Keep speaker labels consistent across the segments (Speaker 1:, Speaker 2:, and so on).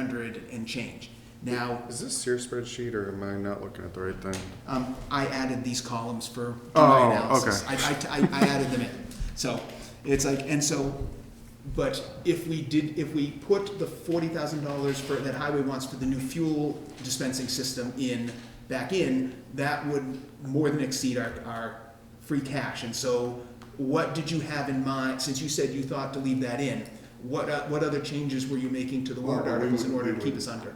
Speaker 1: hundred and change. Now,
Speaker 2: Is this your spreadsheet or am I not looking at the right thing?
Speaker 1: um, I added these columns for
Speaker 2: Oh,
Speaker 1: my analysis.
Speaker 2: okay.
Speaker 1: I, I, I- I added them in. So it's like, and so, but if we did, if we put the forty thousand dollars for, that highway wants for the new fuel dispensing system in, back in, that would more than exceed our, our free cash. And so what did you have in mind, since you said you thought to leave that in, what, uh, what other changes were you making to the warrant
Speaker 3: Well, Oh, we
Speaker 1: articles in
Speaker 3: would-
Speaker 1: order to
Speaker 3: we
Speaker 1: keep
Speaker 3: would-
Speaker 1: us under?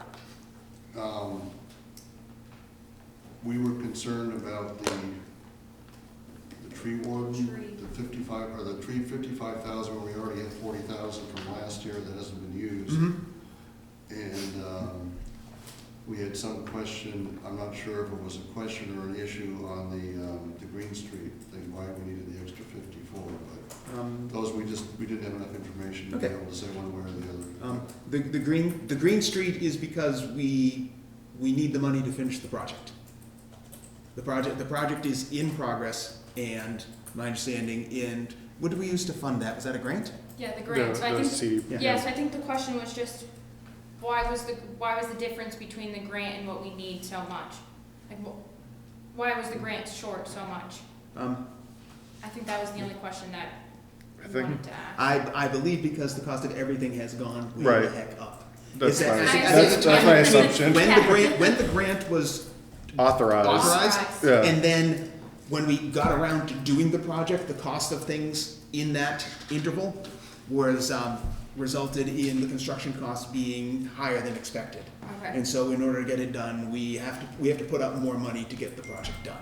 Speaker 3: um, We were concerned about the, the tree warden, the fifty-five, or the tree fifty-five thousand, we already had forty thousand from last year that hasn't been used.
Speaker 1: Mm-hmm.
Speaker 3: And um, we had some question, I'm not sure if it was a question or an issue on the, um, the Green Street thing, why we needed the extra fifty-four, but
Speaker 1: Um,
Speaker 3: those, we just, we didn't have enough information to be
Speaker 1: Okay.
Speaker 3: able to say one way or the other.
Speaker 1: Um, the, the green, the green street is because we, we need the money to finish the project. The project, the project is in progress and my understanding, and what did we use to fund that? Was that a grant?
Speaker 4: Yeah, the grant, so I
Speaker 2: The- the
Speaker 4: think,
Speaker 2: CD
Speaker 1: yeah.
Speaker 4: yes, I think the question was just, why was the, why was the difference between the grant and what we need so much? Like, wh- why was the grant short so much?
Speaker 1: Um,
Speaker 4: I think that was the only question that
Speaker 2: I
Speaker 4: we
Speaker 2: think-
Speaker 4: wanted to ask.
Speaker 1: I, I believe because the cost of everything has gone way the
Speaker 2: Right.
Speaker 1: heck up.
Speaker 2: That's
Speaker 1: Is that-
Speaker 2: my,
Speaker 1: I think- I
Speaker 2: that's,
Speaker 1: think-
Speaker 2: that's my
Speaker 4: I think-
Speaker 2: assumption.
Speaker 1: When the grant, when the grant was
Speaker 2: Authorized.
Speaker 1: authorized,
Speaker 2: Yeah.
Speaker 1: and then when we got around to doing the project, the cost of things in that interval was, um, resulted in the construction costs being higher than expected.
Speaker 4: Okay,
Speaker 1: And so in order to get it done, we have to, we have to put up more money to get the project done.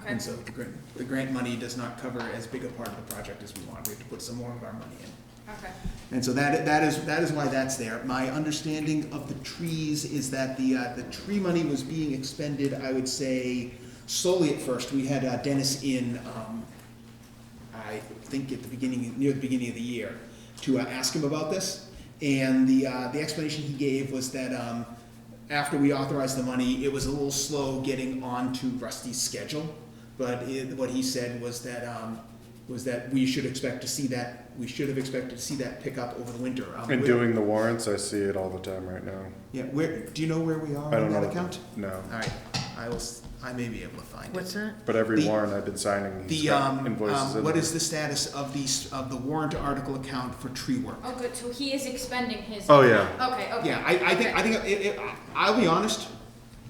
Speaker 4: okay,
Speaker 1: And so the grant, the grant money does not cover as big a part of the project as we want. We have to put some more of our money in.
Speaker 4: okay.
Speaker 1: And so that, that is, that is why that's there. My understanding of the trees is that the, uh, the tree money was being expended, I would say, solely at first. We had uh, Dennis in, um, I think at the beginning, near the beginning of the year, to uh, ask him about this. And the, uh, the explanation he gave was that um, after we authorized the money, it was a little slow getting onto Rusty's schedule. But it, what he said was that, um, was that we should expect to see that, we should have expected to see that pick up over the winter. Um,
Speaker 2: And
Speaker 1: where-
Speaker 2: doing the warrants, I see it all the time right now.
Speaker 1: Yeah, where, do Oh, you know where we are
Speaker 2: I
Speaker 1: on
Speaker 2: don't
Speaker 1: that
Speaker 2: know. what the-
Speaker 1: account?
Speaker 2: No,
Speaker 1: All right, I will, s- I may be able to find it.
Speaker 5: What's that?
Speaker 2: but every
Speaker 1: The-
Speaker 2: warrant I've been signing, he's
Speaker 1: The,
Speaker 2: got
Speaker 1: um, um,
Speaker 2: invoices in
Speaker 1: what
Speaker 2: there.
Speaker 1: is the status of the, s- of the warrant article account for tree work?
Speaker 4: Oh, good, so he is expending his.
Speaker 2: Oh, yeah.
Speaker 4: Okay, okay.
Speaker 1: Yeah, I, I think, I think, it, it, I'll be honest,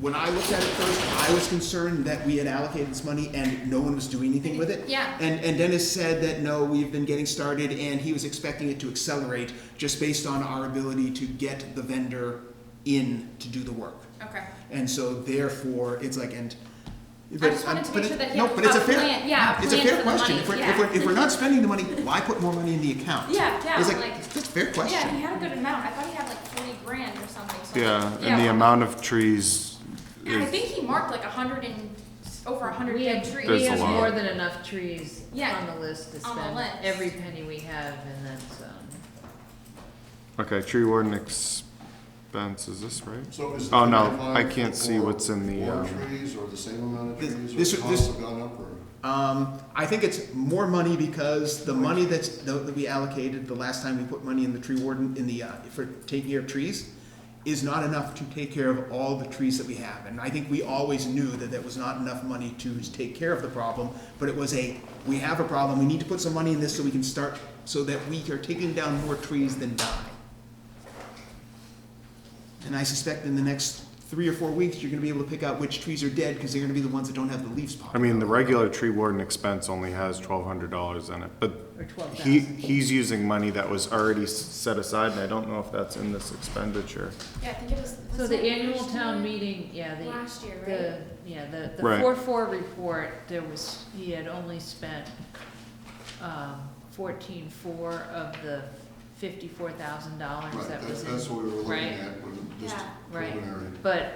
Speaker 1: when I looked at it first, I was concerned that we had allocated this money and no one was doing anything with it.
Speaker 4: Yeah.
Speaker 1: And, and Dennis said that, no, we've been getting started, and he was expecting it to accelerate just based on our ability to get the vendor in to do the work.
Speaker 4: Okay.
Speaker 1: And so therefore, it's like, and.
Speaker 4: I just wanted to
Speaker 1: but
Speaker 4: make
Speaker 1: it-
Speaker 4: sure that he
Speaker 1: no,
Speaker 4: had
Speaker 1: but it's
Speaker 4: a
Speaker 1: fair-
Speaker 4: plan- yeah, a
Speaker 1: It's a
Speaker 4: plan
Speaker 1: fair
Speaker 4: for the
Speaker 1: question,
Speaker 4: money,
Speaker 1: if we're, if
Speaker 4: yeah.
Speaker 1: we're, if we're not spending the money, why put more money in the account?
Speaker 4: Yeah, yeah,
Speaker 1: It's
Speaker 4: like-
Speaker 1: like, it's a fair question.
Speaker 4: Yeah, he had a good amount. I thought he had like forty grand or something, so.
Speaker 2: Yeah, and the amount of trees
Speaker 4: I
Speaker 2: is,
Speaker 4: think he marked like a hundred and, over a hundred
Speaker 5: We
Speaker 4: dead
Speaker 5: have,
Speaker 4: trees.
Speaker 5: we
Speaker 2: That's a
Speaker 5: have
Speaker 2: lot.
Speaker 5: more than enough trees
Speaker 4: Yeah,
Speaker 5: on the list to
Speaker 4: on the
Speaker 5: spend
Speaker 4: list.
Speaker 5: every penny we have and that's, um,
Speaker 2: okay, tree warden expense, is this right?
Speaker 3: So is.
Speaker 2: Oh, no,
Speaker 3: 55
Speaker 2: I can't see what's in the,
Speaker 3: More
Speaker 2: um,
Speaker 3: trees or the same amount of
Speaker 1: This-
Speaker 3: trees
Speaker 1: this-
Speaker 3: or the
Speaker 1: this-
Speaker 3: costs have gone up or?
Speaker 1: Um, I think it's more money because the money that's, that we allocated the last time we put money in the tree warden, in the, uh, for taking care of trees, is not enough to take care of all the trees that we have. And I think we always knew that there was not enough money to take care of the problem, but it was a, we have a problem, we need to put some money in this so we can start, so that we are taking down more trees than die. And I suspect in the next three or four weeks, you're gonna be able to pick out which trees are dead, cause they're gonna be the ones that don't have the leaves popping.
Speaker 2: I mean, the regular tree warden expense only has twelve hundred dollars in it, but
Speaker 5: or twelve
Speaker 2: he,
Speaker 5: thousand.
Speaker 2: he's using money that was already s- set aside, and I don't know if that's in this expenditure.
Speaker 4: Yeah, I think it was.
Speaker 5: So
Speaker 4: was
Speaker 5: the
Speaker 4: it
Speaker 5: annual
Speaker 4: last
Speaker 5: town
Speaker 4: year?
Speaker 5: meeting, yeah, the,
Speaker 4: Last year,
Speaker 5: the,
Speaker 4: right?
Speaker 5: yeah, the, the
Speaker 2: Right.
Speaker 5: four four report, there was, he had only spent, um, fourteen four of the fifty-four thousand dollars
Speaker 3: Right,
Speaker 5: that
Speaker 3: that's,
Speaker 5: was in.
Speaker 3: that's what we were looking
Speaker 5: right.
Speaker 3: at, when just
Speaker 4: Yeah.
Speaker 5: Right.
Speaker 3: preliminary.
Speaker 5: But,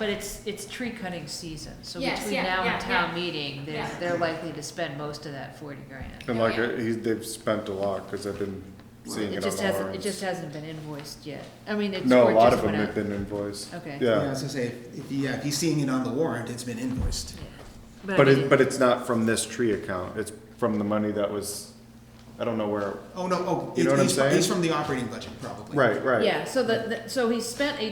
Speaker 5: but it's, it's tree cutting season, so
Speaker 4: Yes,
Speaker 5: between
Speaker 4: yeah,
Speaker 5: now
Speaker 4: yeah,
Speaker 5: and town
Speaker 4: yeah.
Speaker 5: meeting, they're,
Speaker 4: Yeah.
Speaker 5: they're likely to spend most of that forty grand.
Speaker 2: And
Speaker 4: Oh,
Speaker 2: like,
Speaker 4: yeah.
Speaker 2: uh, he's, they've spent a lot, cause I've been seeing it
Speaker 5: It
Speaker 2: on
Speaker 5: just
Speaker 2: the
Speaker 5: hasn't, it just
Speaker 2: warrants.
Speaker 5: hasn't been invoiced yet. I mean, it's.
Speaker 2: No,
Speaker 5: or
Speaker 2: a
Speaker 5: it
Speaker 2: lot of
Speaker 5: just
Speaker 2: them
Speaker 5: went
Speaker 2: have
Speaker 5: out.
Speaker 2: been invoiced.
Speaker 5: Okay.
Speaker 1: Yeah, I
Speaker 2: Yeah,
Speaker 1: was gonna say, if- if, he- yeah, if he's seeing it on the warrant, it's been invoiced.
Speaker 5: Yeah.
Speaker 2: but
Speaker 5: I
Speaker 2: it,
Speaker 5: mean,
Speaker 2: but it's not from this tree account, it's from the money that was I don't know where,
Speaker 1: Oh, no, oh,
Speaker 2: You know what I'm
Speaker 1: he's, he's
Speaker 2: saying?
Speaker 1: from the operating budget, probably.
Speaker 2: right, right.
Speaker 5: Yeah, so the, the- so he spent eighteen